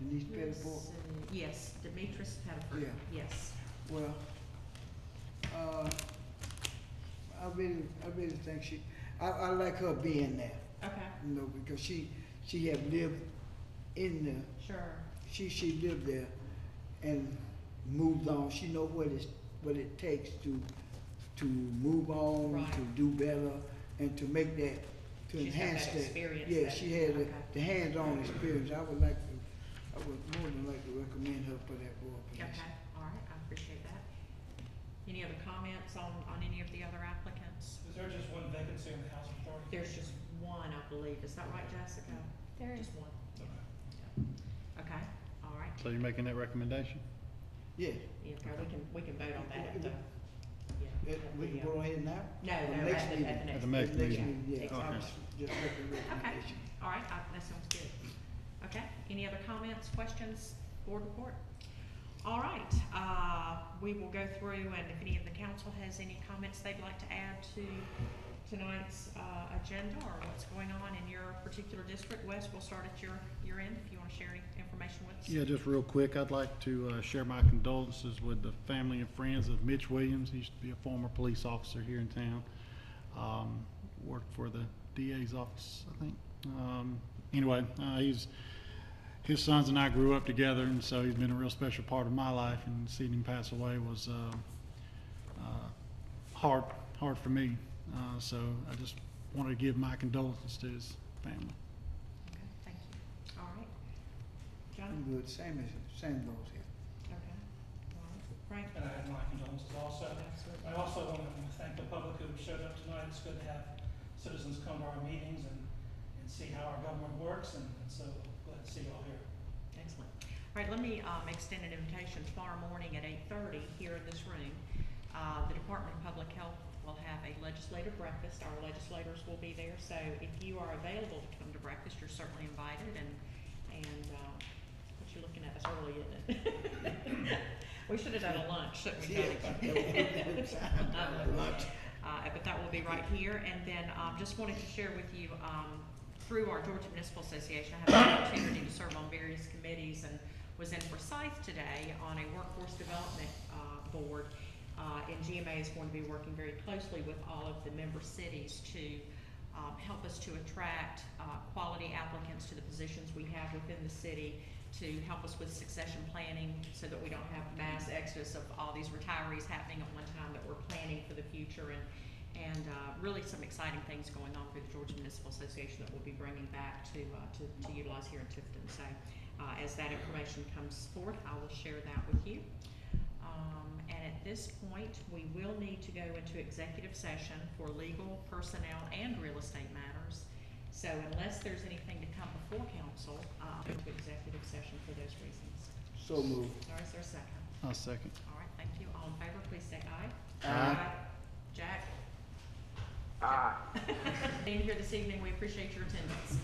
Denise Pettibor? Peterson, uh, Yes, Demetrius Pettiford, Yeah. yes. Well, uh, I really, I really think she, I, I like her being there, Okay, you know, because she, she have lived in the, sure, she, she lived there and moved on. She know what it's, what it takes to, to move on, Right. to do better, and to make that, to She's got that enhance that. experience Yeah, that- she had the, okay. the hands-on experience. I would like to, I would more than like to recommend her for that board okay, position. all right, I appreciate that. Any other comments on, on any of the other applicants? Is there just one vacancy on the housing authority? There's just one, I believe, is that right, Jessica? There is, Just one, Okay. okay, all right, So you're making that recommendation? Yeah. yeah, okay, we can, we can vote on that at the, yeah. It, at we the, can uh, go ahead now? No, Or no, next at the, meeting? at the next. At the next Next meeting. meeting, yeah, I Okay. was just making a recommendation. All right, I- that sounds good. Okay, any other comments, questions, board report? All right, uh, we will go through and if any of the council has any comments they'd like to add to tonight's, uh, agenda or what's going on in your particular district. Wes, we'll start at your, your end if you wanna share any information with us. Yeah, just real quick, I'd like to uh, share my condolences with the family and friends of Mitch Williams. He used to be a former police officer here in town. Um, Worked for the DA's office, I think. Um, Anyway, uh, he's, his sons and I grew up together, and so he's been a real special part of my life, and seeing him pass away was uh, uh, hard, hard for me. Uh, So I just wanted to give my condolences to his family. Okay, thank you. All right. I'm John, good, same as, same goes here. okay. All right. Frank? And I have my condolences also. Absolutely. I also want to thank the public who showed up tonight. It's good to have citizens come to our meetings and, and see how our government works, and and so glad to see y'all here. Excellent. All right, let me um, extend an invitation tomorrow morning at eight-thirty here in this room. Uh, The Department of Public Health will have a legislative breakfast. Our legislators will be there, so if you are available to come to breakfast, you're certainly invited. And, and uh, what you looking at, it's early, isn't it? We should have done a lunch, shouldn't we, Johnny? Lunch. Uh, but that will be right here. And then, um, just wanted to share with you, um, through our Georgia Municipal Association, I have the opportunity to serve on various committees and was in Forsyth today on a workforce development, uh, board. Uh, and GMA is going to be working very closely with all of the member cities to, um, help us to attract, uh, quality applicants to the positions we have within the city to help us with succession planning so that we don't have mass exodus of all these retirees happening at one time that we're planning for the future and, and uh, really some exciting things going on through the Georgia Municipal Association that we'll be bringing back to, uh, to, to utilize here in Tifton. So uh, as that information comes forth, I will share that with you. Um, and at this point, we will need to go into executive session for legal, personnel, and real estate matters. So unless there's anything to come before council, uh, I'll go to executive session for those reasons. So moved. All right, is there a second? i second. All right, thank you. All in favor, please say aye. Aye. Aye. Jack? Aye. Being here this evening, we appreciate your attendance.